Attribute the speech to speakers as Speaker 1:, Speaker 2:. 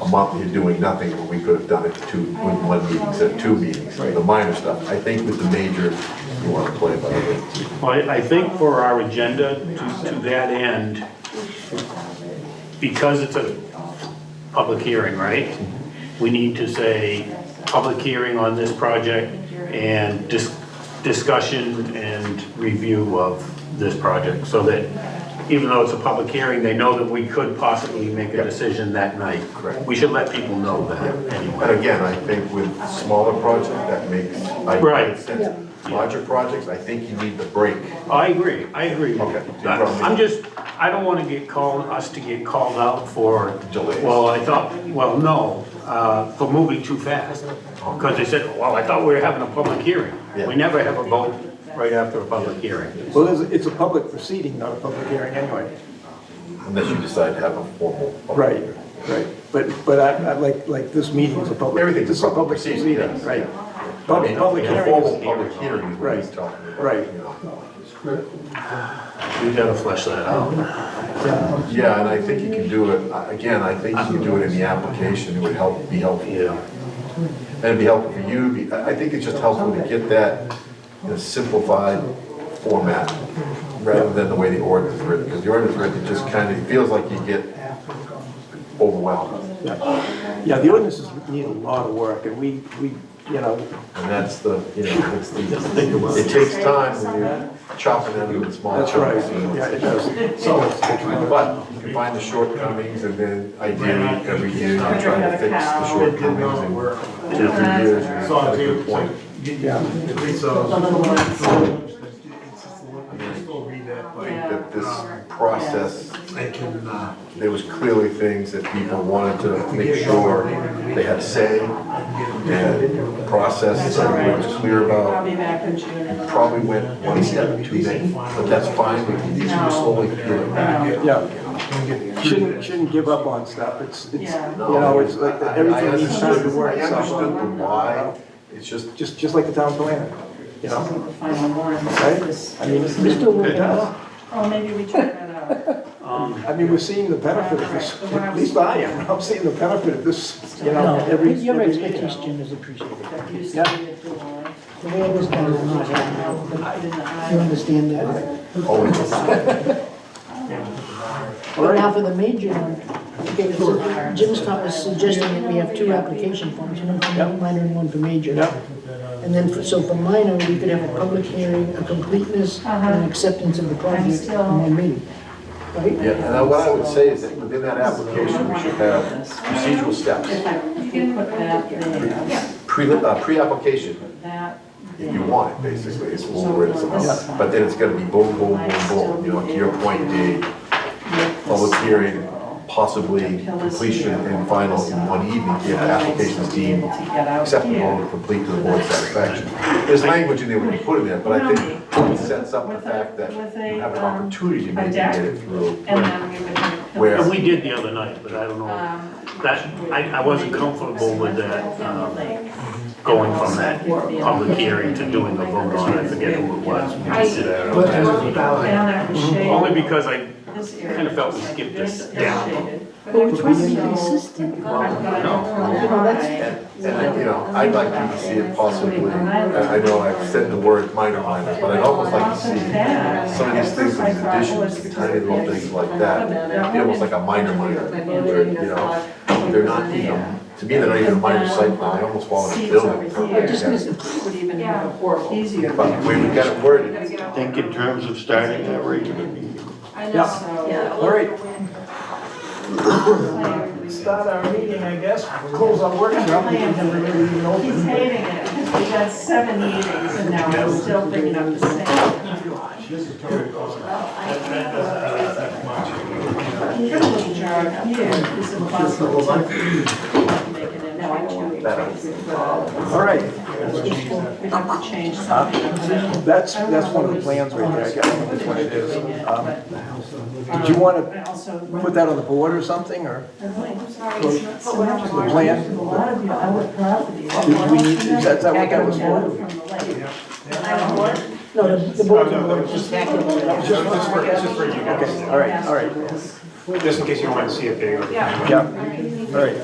Speaker 1: a month here doing nothing, when we could have done it two, when one meeting, instead of two meetings, the minor stuff. I think with the major, you want to play by the rules.
Speaker 2: Well, I I think for our agenda, to, to that end, because it's a public hearing, right? We need to say, public hearing on this project and dis- discussion and review of this project, so that even though it's a public hearing, they know that we could possibly make a decision that night.
Speaker 1: Correct.
Speaker 2: We should let people know that anyway.
Speaker 1: And again, I think with smaller projects, that makes, I
Speaker 2: Right.
Speaker 1: makes sense. Larger projects, I think you need the break.
Speaker 2: I agree, I agree.
Speaker 1: Okay.
Speaker 2: I- I'm just, I don't wanna get called, us to get called out for.
Speaker 1: Delays.
Speaker 2: Well, I thought, well, no, uh, for moving too fast. Cause they said, well, I thought we were having a public hearing.
Speaker 1: Yeah.
Speaker 2: We never have a vote right after a public hearing.
Speaker 3: Well, it's, it's a public proceeding, not a public hearing anyway.
Speaker 1: Unless you decide to have a formal. public
Speaker 3: Right,
Speaker 1: hearing.
Speaker 3: right. But, but I, I like, like this meeting is a public.
Speaker 1: Everything's a
Speaker 3: this is
Speaker 1: public proceeding, yes, I
Speaker 3: Right.
Speaker 1: mean,
Speaker 3: Public, public
Speaker 1: a
Speaker 3: hearing
Speaker 1: Formal
Speaker 3: is,
Speaker 1: public hearing is what he's
Speaker 3: Right,
Speaker 1: talking about.
Speaker 3: right.
Speaker 1: you know.
Speaker 2: We gotta flesh that out.
Speaker 3: yeah,
Speaker 1: Yeah, and I think you can do it, I- again, I think you can do it in the application, it would help, be helpful.
Speaker 2: Yeah.
Speaker 1: And it'd be helpful for you, be- I I think it's just helpful to get that in a simplified format, rather than the way the ordinance is written, because the ordinance is written, it just kind of, it feels like you get overwhelmed.
Speaker 3: yeah, the ordinances need a lot of work and we, we, you know,
Speaker 1: And that's the, you know, it's the, it takes time when you're chopping it into small
Speaker 3: that's right.
Speaker 1: chunks.
Speaker 3: Yeah, it does.
Speaker 1: But you can find the shortcomings, and then ideally, every year, you try to fix the shortcomings, and every year, you
Speaker 4: So,
Speaker 1: have a
Speaker 4: if you,
Speaker 1: good point.
Speaker 3: Yeah,
Speaker 4: at least, uh, it's just a little- just go read that,
Speaker 1: I think
Speaker 4: but
Speaker 1: that this process,
Speaker 4: I can, uh,
Speaker 1: there was clearly things that people wanted to make sure they had say, and process that we were clear
Speaker 5: I'll
Speaker 1: about.
Speaker 5: be back in June.
Speaker 1: We Probably went one step too late, but that's fine, we can these are slowly peeling back.
Speaker 3: yeah.
Speaker 4: can get through
Speaker 3: Shouldn't,
Speaker 4: that.
Speaker 3: shouldn't give up on stuff. It's, it's, you
Speaker 5: Yeah.
Speaker 3: know, it's like,
Speaker 1: I- I- I
Speaker 3: everything needs time
Speaker 1: understood-
Speaker 3: to work.
Speaker 1: I
Speaker 3: so-
Speaker 1: understood the why, it's just,
Speaker 3: Just, just like the town planner, you know?
Speaker 5: The final warrant.
Speaker 3: Right?
Speaker 5: This-
Speaker 3: I mean, Mr.
Speaker 5: Oh, maybe we took that out.
Speaker 3: I mean, we're seeing the benefit of this, at least I am, I'm seeing the benefit of this, you know,
Speaker 6: No,
Speaker 3: every,
Speaker 6: your
Speaker 3: every year.
Speaker 6: expertise, Jim, is appreciated.
Speaker 5: That used to
Speaker 3: Yeah.
Speaker 5: be a dual.
Speaker 6: The way it was done was not
Speaker 5: Now,
Speaker 6: happening.
Speaker 5: put it in the
Speaker 6: You
Speaker 5: eye.
Speaker 6: understand that?
Speaker 1: oh, it's
Speaker 6: But now for the major one, okay, so Jim's thought was suggesting that we have two application forms, one for
Speaker 3: Yep.
Speaker 6: minor and one for major.
Speaker 3: Yep.
Speaker 6: And then, for- so for minor, we could have a public hearing, a completeness, and an acceptance of the project in one meeting.
Speaker 1: Yeah, and what I would say is that within that application, we should have procedural steps,
Speaker 5: You can put that there,
Speaker 1: pre, uh, pre-application,
Speaker 5: that
Speaker 1: if you want it, basically, is where it's about. But then it's gonna be boom, boom, boom, boom, you know, to your point, Dave, public hearing, possibly completion and final in one evening, if the application is deemed acceptable and complete to the board's satisfaction. There's language in there when you put in there, but I think it sets up the fact that you have an
Speaker 5: um,
Speaker 1: opportunity to maybe get it through,
Speaker 5: and then we would. have a
Speaker 1: Where-
Speaker 2: And we did the other night, but I don't know,
Speaker 5: Um,
Speaker 2: that, I, I wasn't comfortable with that, um, going from that public hearing to doing a vote on, it. I forget who it was. We did that.
Speaker 5: Down at the shade.
Speaker 2: Only because I,
Speaker 5: This area
Speaker 2: kind of felt we
Speaker 5: is like
Speaker 2: skipped
Speaker 5: this
Speaker 2: this
Speaker 5: is
Speaker 2: down.
Speaker 5: shaded.
Speaker 6: But which
Speaker 5: one's
Speaker 6: was
Speaker 5: the
Speaker 6: consistent?
Speaker 5: I've got it all
Speaker 6: You know, that's-
Speaker 5: high.
Speaker 1: And, and, you know, I'd like to see it possibly, I I know I've said the word minor minor, but I'd almost like to see some of these things, these additions, tiny little things like that, be almost like a minor minor, where, you know, they're not, you know, to me, they're not even a minor site plan, they almost fall into building.
Speaker 5: I just
Speaker 1: permit.
Speaker 5: Would even have a horrible. Easier.
Speaker 1: But we have got it worded,
Speaker 7: Think in terms of starting that regular meeting.
Speaker 5: I
Speaker 3: Yeah. All right,
Speaker 5: So-
Speaker 3: start our meeting, I guess, close our workshop, we can never really even
Speaker 5: He's
Speaker 3: open.
Speaker 5: hating it. We had seven meetings and now we're still picking up the same. You're a little jar up here. It's impossible to make it in two weeks.
Speaker 3: All right,
Speaker 5: We'd have to change something.
Speaker 3: that's, that's one of the plans right there, I guess, that's what it is. Um, Did you want to put that on the board or something, or the plan? Do we need, is that is that what that was for?
Speaker 6: No, the- the board, the board just back it.
Speaker 8: Just for, just for you guys,
Speaker 3: Okay, all right, all right,
Speaker 8: just in case you want to see it bigger.
Speaker 3: yeah, all right.